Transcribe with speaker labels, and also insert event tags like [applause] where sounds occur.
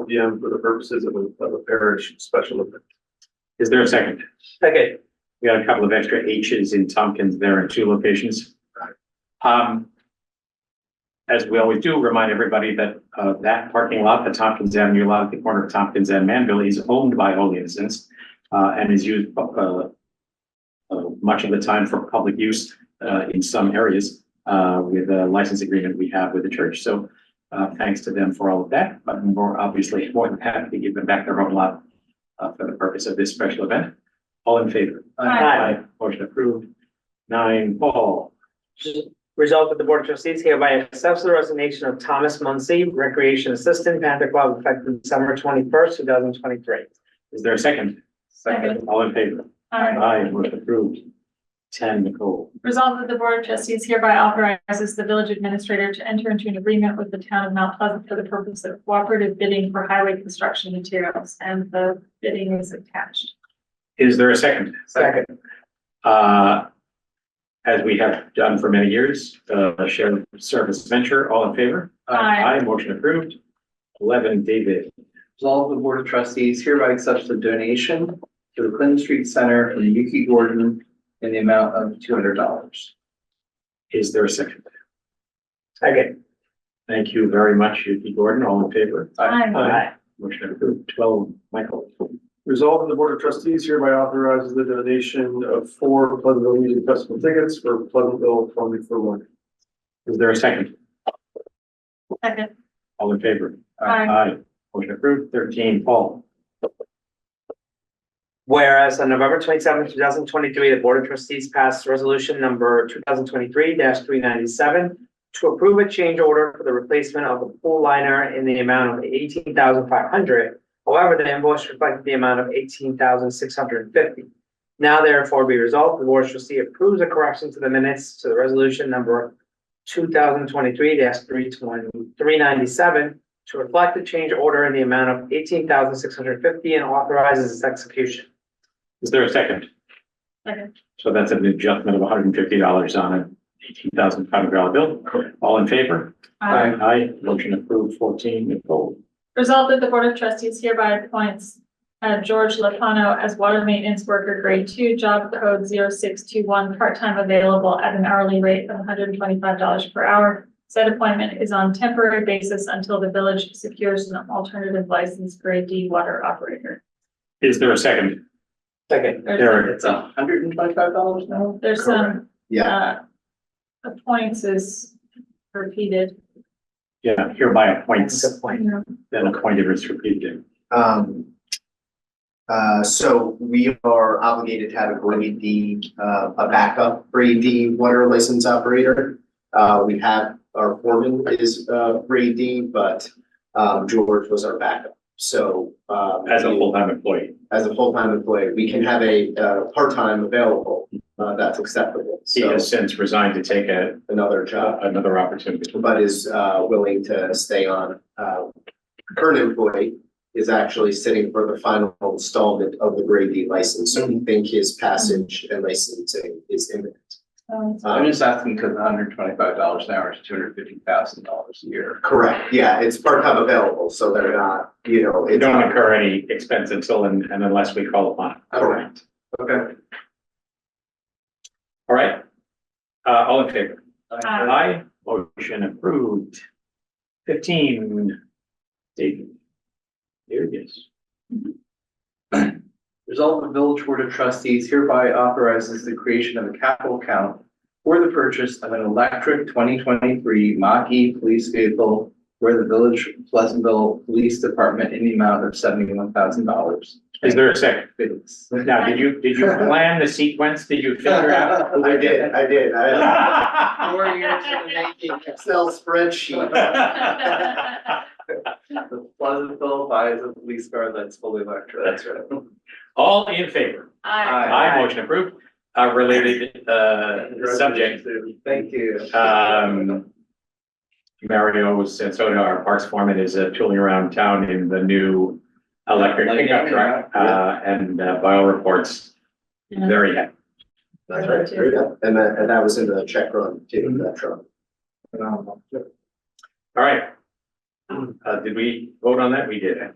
Speaker 1: PM for the purposes of a, of a parish special event.
Speaker 2: Is there a second?
Speaker 3: Second.
Speaker 2: We got a couple of extra H's in Tompkins there in two locations. Um, as we always do, remind everybody that, uh, that parking lot, the Tompkins Avenue lot at the corner of Tompkins and Manville is owned by Holy Innocents, uh, and is used, uh, uh, much of the time for public use, uh, in some areas, uh, with a license agreement we have with the church. So, uh, thanks to them for all of that, but we're obviously more than happy to give them back their own lot, uh, for the purpose of this special event. All in favor?
Speaker 3: Aye.
Speaker 2: Motion approved. Nine, Paul.
Speaker 3: Resolved that the Board of Trustees hereby accepts the resignation of Thomas Muncy, Recreation Assistant, Panther Club, effective December twenty-first, two thousand twenty-three.
Speaker 2: Is there a second?
Speaker 4: Second.
Speaker 2: All in favor?
Speaker 4: Aye.
Speaker 2: Aye, motion approved. Ten, Nicole.
Speaker 4: Um, Resolved that the Board of Trustees hereby authorizes the village administrator to enter into an agreement with the town of Mount Pleasant for the purpose of cooperative bidding for highway construction materials, and the bidding is attached.
Speaker 2: Is there a second?
Speaker 3: Second.
Speaker 2: Uh, as we have done for many years, uh, shared service venture, all in favor?
Speaker 4: Aye.
Speaker 2: Aye, motion approved. Eleven, David.
Speaker 5: Resolve the Board of Trustees hereby accepts the donation to the Clinton Street Center from Yuki Gordon in the amount of two hundred dollars.
Speaker 2: Is there a second?
Speaker 3: Second.
Speaker 2: Thank you very much, Yuki Gordon. All in favor?
Speaker 4: Aye.
Speaker 2: Motion approved. Twelve, Michael.
Speaker 1: Resolved that the Board of Trustees hereby authorizes the donation of four Pleasantville Music Festival tickets for Pleasantville twenty for one.
Speaker 2: Is there a second?
Speaker 4: Second.
Speaker 2: All in favor?
Speaker 4: Aye.
Speaker 2: Aye. Motion approved. Thirteen, Paul.
Speaker 3: Whereas on November twenty-seventh, two thousand twenty-three, the Board of Trustees passed resolution number two thousand twenty-three three ninety-seven to approve a change order for the replacement of the pool liner in the amount of eighteen thousand five hundred. However, the invoice reflected the amount of eighteen thousand six hundred and fifty. Now therefore be resolved, the Board of Trustees approves a correction to the minutes to the resolution number two thousand twenty-three 397 to reflect the change order in the amount of eighteen thousand six hundred fifty and authorizes its execution.
Speaker 2: Is there a second?
Speaker 4: Second.
Speaker 2: So that's an adjustment of hundred and fifty dollars on an eighteen thousand five hundred dollar bill. All in favor?
Speaker 4: Aye.
Speaker 2: Aye. Motion approved. Fourteen, Nicole.
Speaker 4: Resolved that the Board of Trustees hereby appoints uh, George Lapano as water maintenance worker grade two, job code 0621, part-time available at an hourly rate of hundred and twenty-five dollars per hour. Said appointment is on temporary basis until the village secures an alternative license grade D water operator.
Speaker 2: Is there a second?
Speaker 3: Second.
Speaker 4: There's,
Speaker 2: Eric.
Speaker 5: It's hundred and twenty-five dollars now?
Speaker 4: there's some,
Speaker 5: Yeah.
Speaker 4: uh, appoints is repeated.
Speaker 2: Yeah, hereby appoints,
Speaker 3: Good point.
Speaker 2: then appointed is repeated.
Speaker 6: Um, uh, so we are obligated to have a grade D, uh, a backup grade D water license operator. Uh, we have, our foreman is, uh, grade D, but, um, George was our backup. So, uh.
Speaker 2: As a full-time employee,
Speaker 6: As a full-time employee, we can have a, uh, part-time available, uh, that's acceptable.
Speaker 2: he
Speaker 6: So
Speaker 2: has since resigned to take a,
Speaker 6: another job,
Speaker 2: another opportunity.
Speaker 6: but is, uh, willing to stay on, uh, current employee is actually sitting for the final installment of the grade D license, so
Speaker 5: Mm-hmm.
Speaker 6: we think his passage and licensing is imminent.
Speaker 4: Um,
Speaker 5: I'm
Speaker 6: Um,
Speaker 5: just asking because hundred and twenty-five dollars an hour is two hundred and fifty thousand dollars a year.
Speaker 6: Correct, yeah, it's part-time available, so they're not, you know,
Speaker 2: They
Speaker 6: it's
Speaker 2: don't
Speaker 6: not.
Speaker 2: incur any expense until and and unless we call upon. it.
Speaker 6: Correct. Okay.
Speaker 2: All right? Uh, all in favor?
Speaker 4: Aye.
Speaker 2: Motion approved. Fifteen. David. There it is.
Speaker 5: Resolve the Village Board of Trustees hereby authorizes the creation of a capital account for the purchase of an electric twenty twenty-three Mach-E police vehicle for the Village Pleasantville Police Department in the amount of seventy-one thousand dollars.
Speaker 2: Is there a second?
Speaker 5: Thanks.
Speaker 2: Now, did
Speaker 6: [laughs]
Speaker 2: you, did you plan the sequence? Did you figure out? [laughs]
Speaker 6: I did, I did, I [laughs] had
Speaker 5: Four years in the making.
Speaker 6: an Excel spreadsheet.
Speaker 5: The Pleasantville buys a police car that's fully electric.
Speaker 2: That's All in favor?
Speaker 4: Aye.
Speaker 2: Aye, motion approved. Uh, related, uh, subject,
Speaker 5: Thank you.
Speaker 2: um. Mario Sansoda, our parks foreman, is uh, tooling around town in the new electric pickup truck. Uh, and uh, by all reports, very happy.
Speaker 6: That's right, there you go. And that, and that was in the check run, too, that truck.
Speaker 2: All right. Uh, did we vote on that? We did.